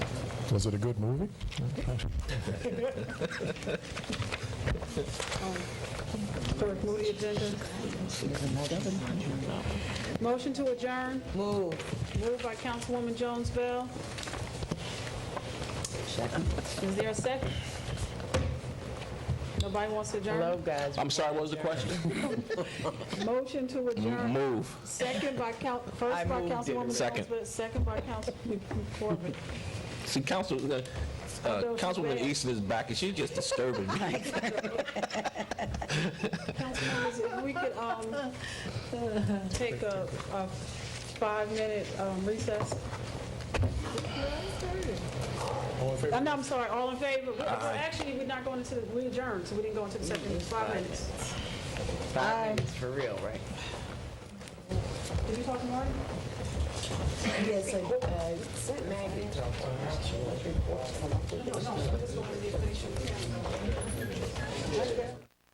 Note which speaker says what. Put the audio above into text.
Speaker 1: Was it a good movie?
Speaker 2: Third, move the agenda. Motion to adjourn. Move. Moved by Councilwoman Jones Bell. Second. Is there a second? Nobody wants to
Speaker 3: Hello,
Speaker 2: adjourn?
Speaker 3: guys.
Speaker 4: I'm sorry, what was the question?
Speaker 2: Motion to adjourn.
Speaker 4: Move.
Speaker 2: Second by Council, first by
Speaker 3: moved it.
Speaker 2: Councilwoman Jones
Speaker 4: Second.
Speaker 2: Bell, second by Councilwoman Corbett.
Speaker 4: See, Council, uh, uh,
Speaker 2: Those
Speaker 4: Councilwoman
Speaker 2: bad.
Speaker 4: Easton is back, and she's just disturbing me.
Speaker 2: Councilmembers, if we could um, take a a five-minute um, recess. Uh, No, I'm sorry, all in favor? Well, Actually, we're not going into, the- we adjourned, so we didn't go into the second, five minutes.
Speaker 3: Five minutes for real, right?
Speaker 2: Did you talk to Marty?
Speaker 5: Yes, I uh, sent Maggie.